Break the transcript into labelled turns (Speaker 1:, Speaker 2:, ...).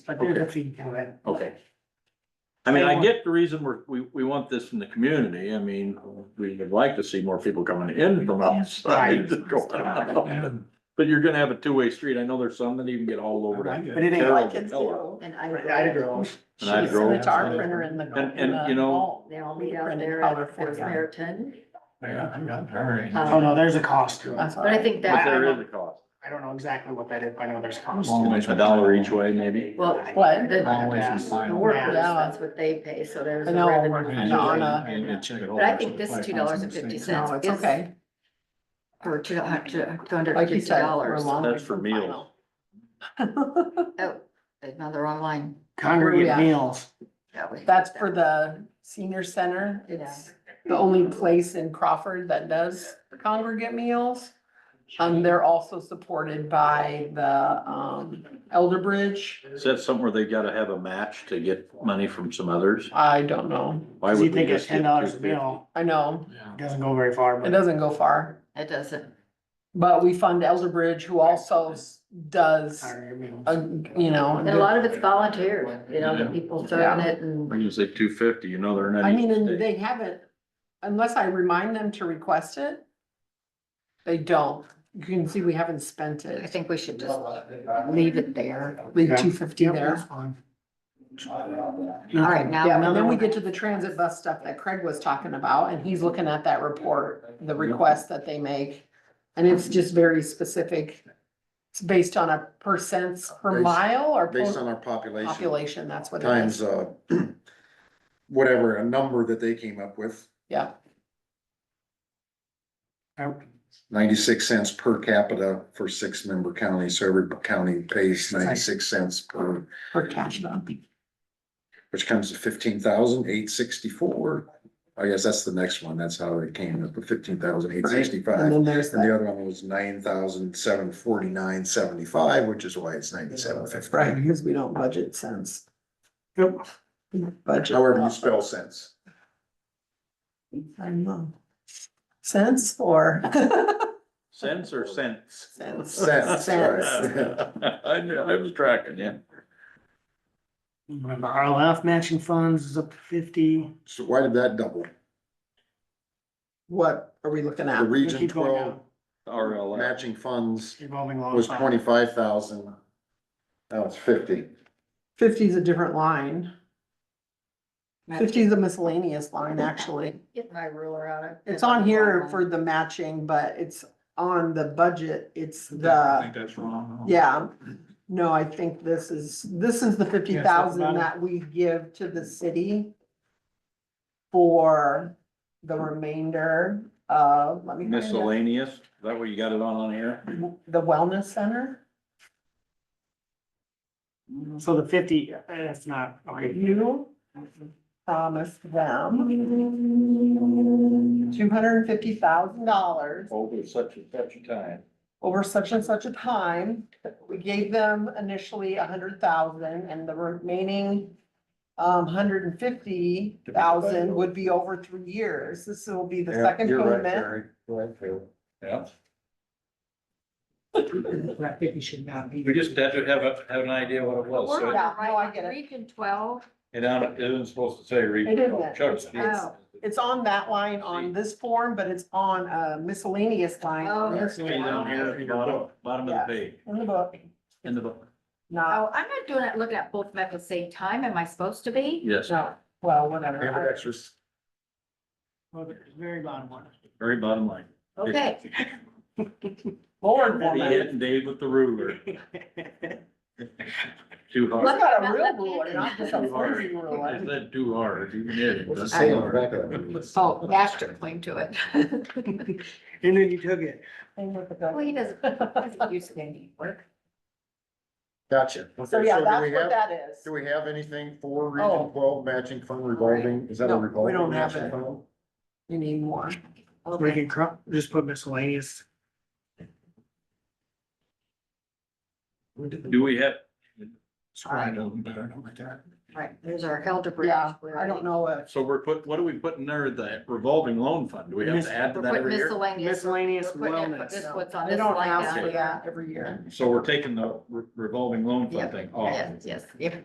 Speaker 1: but there's a fee to it.
Speaker 2: Okay. I mean,
Speaker 1: They
Speaker 2: I
Speaker 1: want-
Speaker 2: get the reason we're, we, we want this in the community. I mean, we would like to see more people coming in from outside. But you're gonna have a two-way street. I know there's some that even get all over that.
Speaker 1: But it ain't
Speaker 2: Carol
Speaker 1: like,
Speaker 3: I can
Speaker 2: Miller.
Speaker 4: Oh,
Speaker 3: do, and I.
Speaker 1: Right, Ida Grove.
Speaker 3: She's
Speaker 2: Ida Grove.
Speaker 3: it's our printer in the.
Speaker 2: And- and,
Speaker 3: in uh, the
Speaker 2: you know-
Speaker 3: hall. They'll be out there at Fort Meriton.
Speaker 5: Yeah, I
Speaker 4: Um,
Speaker 5: got very.
Speaker 1: oh no, there's a cost to it.
Speaker 3: But I think
Speaker 2: But
Speaker 3: that,
Speaker 2: there is a cost.
Speaker 1: I don't know exactly what that is, but I know there's a cost.
Speaker 5: Long ways
Speaker 2: A dollar each way, maybe.
Speaker 3: well,
Speaker 4: What?
Speaker 3: the,
Speaker 5: Long ways from
Speaker 3: the
Speaker 5: final.
Speaker 3: workers,
Speaker 4: Yeah.
Speaker 3: that's what they pay, so there's.
Speaker 4: I
Speaker 3: a
Speaker 4: know,
Speaker 3: revenue
Speaker 4: and
Speaker 5: Yeah,
Speaker 4: Anna.
Speaker 5: you can check it all.
Speaker 3: But I think this two dollars and fifty cents
Speaker 4: No, it's
Speaker 3: is
Speaker 4: okay.
Speaker 3: for two hundred
Speaker 4: Like
Speaker 3: and
Speaker 4: you
Speaker 3: fifty
Speaker 4: said, we're
Speaker 3: dollars.
Speaker 4: a long
Speaker 2: That's
Speaker 4: way
Speaker 2: for
Speaker 4: from
Speaker 2: meals.
Speaker 4: final.
Speaker 3: Oh, another online.
Speaker 1: Congregate
Speaker 4: Yeah.
Speaker 1: meals.
Speaker 4: That's for the senior center. It's the only place in Crawford that does congregate meals. Um, they're also supported by the, um, Elder Bridge.
Speaker 2: Is that something where they gotta have a match to get money from some others?
Speaker 4: I don't know.
Speaker 2: Why
Speaker 1: Cause you
Speaker 2: would we
Speaker 1: think at
Speaker 2: just
Speaker 1: ten
Speaker 2: get
Speaker 1: dollars a
Speaker 2: 250?
Speaker 1: meal,
Speaker 4: I know.
Speaker 1: it doesn't go very far,
Speaker 4: It
Speaker 1: but
Speaker 4: doesn't go far,
Speaker 3: It doesn't.
Speaker 4: but we fund Elder Bridge who also s- does,
Speaker 1: congregate meals.
Speaker 4: uh, you know.
Speaker 3: And a lot of it's volunteer, you know, the people serving
Speaker 4: Yeah.
Speaker 3: it and.
Speaker 2: When you say two fifty, you know they're not.
Speaker 4: I mean,
Speaker 2: eating
Speaker 4: and
Speaker 2: steak.
Speaker 4: they haven't, unless I remind them to request it. They don't. You can see we haven't spent
Speaker 3: I
Speaker 4: it.
Speaker 3: think we should just leave it there.
Speaker 4: Leave
Speaker 1: Yeah.
Speaker 4: two fifty
Speaker 1: Yep,
Speaker 4: there.
Speaker 1: that's fine.
Speaker 3: All right, now.
Speaker 4: Yeah, and then we get to the transit bus stuff that Craig was talking about, and he's looking at that report, the request that they make. And it's just very specific. It's based on a percents per
Speaker 6: Based-
Speaker 4: mile or
Speaker 6: based on
Speaker 4: po-
Speaker 6: our population
Speaker 4: population, that's what it
Speaker 6: times,
Speaker 4: is.
Speaker 6: uh, whatever, a number that they came up with,
Speaker 4: Yeah,
Speaker 6: ninety-six cents per capita for six-member counties, so every county pays ninety-six cents per,
Speaker 4: per capita.
Speaker 6: which comes to fifteen thousand eight sixty-four. I guess that's the next one, that's how they came up with fifteen thousand eight
Speaker 4: And
Speaker 6: sixty-five.
Speaker 4: then there's
Speaker 6: And the
Speaker 4: that,
Speaker 6: other one was nine thousand seven forty-nine seventy-five, which is why it's ninety-seven fifty.
Speaker 4: right, because we don't budget cents,
Speaker 1: Yep.
Speaker 4: budget.
Speaker 6: However you spell cents.
Speaker 4: I don't know. Cents or?
Speaker 2: Cents or cents?
Speaker 4: Cents.
Speaker 6: Cents,
Speaker 4: Cents.
Speaker 6: right.
Speaker 2: I knew, I was tracking, yeah.
Speaker 1: Remember RLF matching funds is up to fifty.
Speaker 6: So why did that double?
Speaker 4: What are we looking
Speaker 6: The
Speaker 4: at?
Speaker 1: They
Speaker 6: region
Speaker 1: keep going
Speaker 6: twelve
Speaker 1: down.
Speaker 2: RLF.
Speaker 6: matching funds
Speaker 1: Revolving loan.
Speaker 6: was
Speaker 1: fund.
Speaker 6: twenty-five thousand. Now it's fifty.
Speaker 4: Fifty is a different line. Fifty is a miscellaneous line, actually.
Speaker 3: Get my ruler out of.
Speaker 4: It's on here for the matching, but it's on the budget. It's
Speaker 5: I
Speaker 4: the,
Speaker 5: think that's wrong.
Speaker 4: yeah. No, I think this is, this is the fifty thousand that we give to the city for the remainder of, let me. find it.
Speaker 2: Miscellaneous, is that what you got it on on here?
Speaker 4: The wellness center?
Speaker 1: So the fifty, uh, that's not, okay.
Speaker 4: You promised them two hundred and fifty thousand dollars
Speaker 2: Over such and such a time.
Speaker 4: over such and such a time. We gave them initially a hundred thousand and the remaining um, hundred and fifty thousand would be over three years. This will be the second payment.
Speaker 2: Yeah.
Speaker 1: That fifty should not be.
Speaker 2: We just had to have a, have an idea what it was.
Speaker 4: Word
Speaker 2: So
Speaker 4: out, no, I get it.
Speaker 3: Region twelve.
Speaker 2: it don't- it isn't supposed to say
Speaker 4: It
Speaker 2: region.
Speaker 4: isn't.
Speaker 2: Chuck
Speaker 4: It's-
Speaker 2: speaks.
Speaker 4: it's- It's on that line on this form, but it's on a miscellaneous line on
Speaker 3: Oh.
Speaker 4: this
Speaker 2: Way down
Speaker 4: form
Speaker 2: here at the bottom, bottom of the page,
Speaker 4: in the book,
Speaker 2: in the book.
Speaker 4: not,
Speaker 3: Oh, I'm not doing it, looking at both of them at the same time. Am I supposed to be?
Speaker 2: Yes,
Speaker 4: no, well,
Speaker 6: Payment
Speaker 4: whatever.
Speaker 6: extras.
Speaker 1: Well, the Very bottom one.
Speaker 2: very bottom line.
Speaker 3: Okay,
Speaker 4: Lord
Speaker 2: Be
Speaker 4: woman.
Speaker 2: hitting Dave with the ruler. Too
Speaker 4: I
Speaker 2: hard.
Speaker 4: got a real ruler, not just a flimsy ruler.
Speaker 2: Is that too hard? You did.
Speaker 6: What's it say on the back of that?
Speaker 3: so Astor cling to it.
Speaker 1: And then you took it.
Speaker 4: Thing with the
Speaker 3: Well, he doesn't,
Speaker 4: gun.
Speaker 3: doesn't use it anymore.
Speaker 6: Gotcha. Okay,
Speaker 4: So yeah,
Speaker 6: do we
Speaker 4: that's what
Speaker 6: have-
Speaker 4: that
Speaker 6: Do
Speaker 4: is.
Speaker 6: we have anything for
Speaker 4: Oh.
Speaker 6: Region twelve matching fund revolving? Is that
Speaker 4: No,
Speaker 6: a
Speaker 4: we
Speaker 6: revolving?
Speaker 4: don't have
Speaker 6: matching
Speaker 4: it.
Speaker 6: fund?
Speaker 4: You need more.
Speaker 1: We can cro- just put miscellaneous.
Speaker 2: Do we have,
Speaker 5: Sorry, I don't, I don't like that.
Speaker 3: Right, there's our elder bridge.
Speaker 4: Yeah, I don't know if,
Speaker 2: so we're put, what do we put in there, the revolving loan fund? Do we have to add to
Speaker 3: We're
Speaker 2: that
Speaker 3: putting
Speaker 2: every year?
Speaker 3: miscellaneous.
Speaker 1: Miscellaneous
Speaker 3: We're putting it-
Speaker 1: wellness.
Speaker 3: This
Speaker 4: No.
Speaker 3: what's on
Speaker 4: they
Speaker 3: this
Speaker 4: don't
Speaker 3: line
Speaker 4: ask for
Speaker 3: down.
Speaker 4: that every year.
Speaker 2: So we're taking the re- revolving loan fund thing off.
Speaker 3: Yes, yes, yeah.